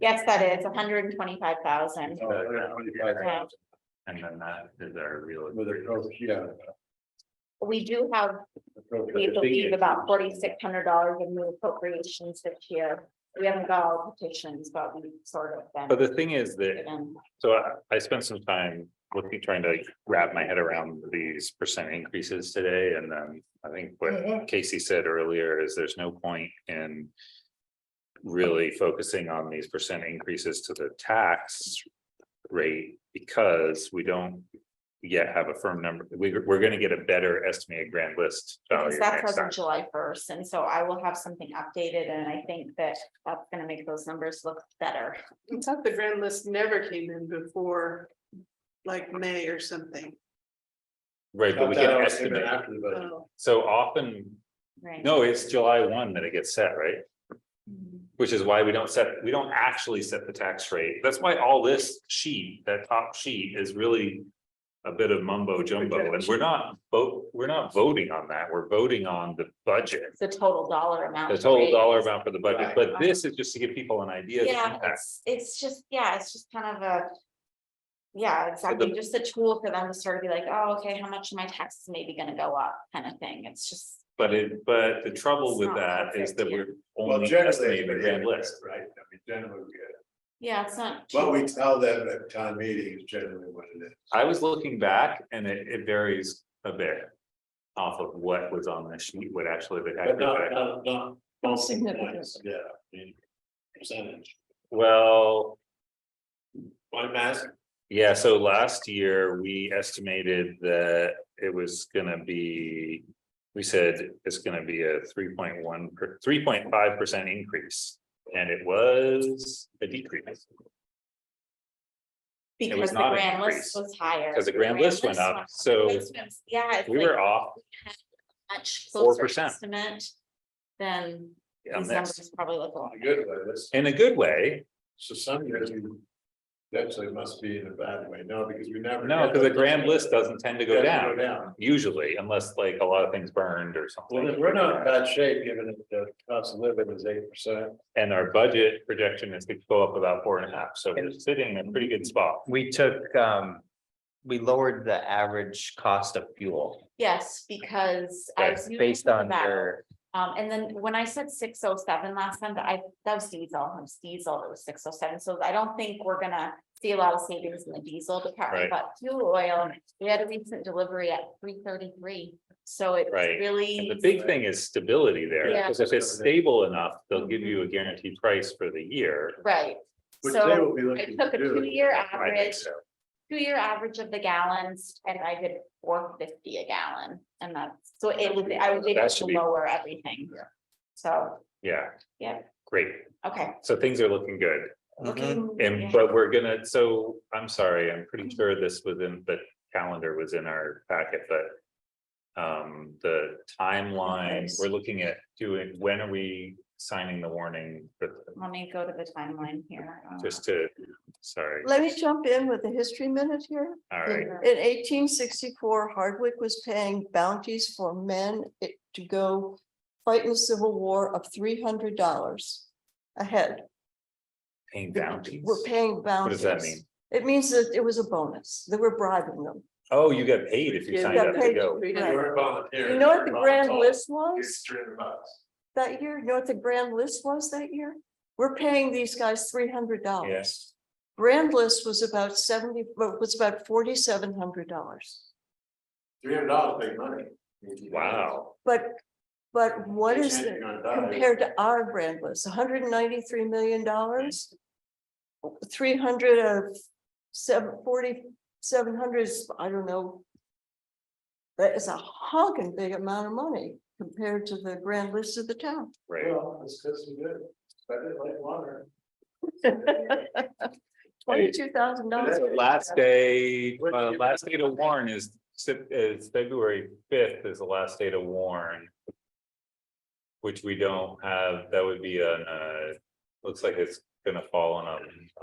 Yes, that is hundred and twenty-five thousand. Yeah. And then that is our real. With a coach, yeah. We do have, we believe about forty-six hundred dollars in new appropriations this year. We haven't got all petitions, but we sort of. But been the thing is that, given- so I, I spent some time looking, trying to wrap my head around these percent increases today, and then I think what Casey said earlier is there's no point in. Really focusing on these percent increases to the tax rate, because we don't. Yet have a firm number, we, we're gonna get a better estimated grand list. Because value that's next as time. of July first, and so I will have something updated, and I think that that's gonna make those numbers look better. I thought the grand list never came in before, like May or something. Right, but we can estimate, After the Um, budget. Oh, so often, Right. no, it's July one that it gets set, right? Which is why we don't set, we don't actually set the tax rate. That's why all this sheet, that top sheet is really. A bit of mumbo jumbo and we're not vote, we're not voting on that. We're voting on the budget. The total dollar amount. The total dollar raised. amount for the budget, Right. but this is just to give people an idea. of the Yeah, impact. it's, it's just, yeah, it's just kind of a. Yeah, exactly, just a tool for them to sort of be like, oh, okay, how much my tax is maybe gonna go up, kind of thing, it's just. But it, but the trouble It's with not that is perfect, that yeah. we're Well, only generally, estimating it's the grand list. right, I mean, generally, we get it. Yeah, it's not. what we cheap. tell them at town meeting is generally what it is. I was looking back and it, it varies a bit. Off of what was on the sheet, what actually the tax But not, rate. not, not. Not significant. points, Yeah. I mean, Percentage, Well, one mask, yeah, so last year we estimated that it was gonna be. We said it's gonna be a three point one, three point five percent increase, and it was a decrease. was Because the not an grand increase, list was higher. 'cause the grand list went up, the so placements, Yeah. it's We like were off Much 4%. closer estimate than on these this numbers probably look like. good way, that's, in a good way, so some years you. Actually must be in a bad way, no, because we never. no, because the grand list doesn't tend to go Doesn't Go down down. usually unless like a lot of things burned or something. Well, then we're not uh, in bad shape, given that the cost of living is eight percent. And our budget projection is to go up about four and a half, so we're sitting in a pretty good spot. We took, um, we lowered the average cost of fuel. Yes, because. I That's do based remember on that. your, Um, and then when I said six oh seven last time, that I, that was diesel, it was diesel, it was six oh seven, so I don't think we're gonna. See a lot of savings in the diesel Right. department, but fuel oil, we had a recent delivery at three thirty-three, so it's Right. really. And the big thing is stability there, Yeah. Mm-hmm. because if it's stable enough, they'll give you a guaranteed price for the year. Right, Which they so will be I looking to took a do. two-year I think average, so. two-year average of the gallons, and I did four fifty a gallon, and that's, so it was, I was able That should to be- lower everything. So, Yeah. Yeah. Great, okay, so things are looking good, Mm-hmm. looking. Mm-hmm, yeah. Mm-hmm. and but we're gonna, so I'm sorry, I'm pretty sure this was in, the calendar was in our packet, but. Um, the timeline, we're looking at doing, when are we signing the warning, but Let me go to the timeline here. Uh, just to, sorry, Let me jump in with a history minute here. all Uh, right. In eighteen sixty-four, Hardwick was paying bounties for men it- to go fight in the Civil War of three hundred dollars a head. Paying bounties. We're paying What bounties. does that mean? It means that it was a bonus, that we're bribing them. Oh, you got paid if you Yeah, signed got up to paid. go. You were volunteer. You know what the grand list It's was three hundred bucks. that year? You know what the grand list was that year? We're paying these guys three hundred dollars. Yes, Grand list was about seventy, was about forty-seven hundred dollars. Three hundred dollars, big money. wow, But, but what You is can't it do it that way. compared to our grand list, hundred and ninety-three million dollars? Three hundred of seven, forty, seven hundred, I don't know. That is a honking big amount of money compared to the grand list of the town. right, Well, it's because we did, spend it like water. Twenty-two thousand dollars. That's- last day, What- uh, last day to warn is, Sep- is February fifth is the last day to warn. Which we don't have, that would be a, uh, looks like it's gonna fall on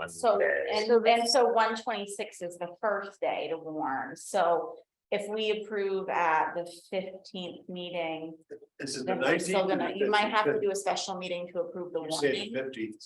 a So, Monday. and, and so one twenty-six is the first day to warn, so if we approve at the fifteenth meeting. This is the Then we're nineteenth. still gonna, you might have to do a special meeting to approve the You say warning. fifteenth,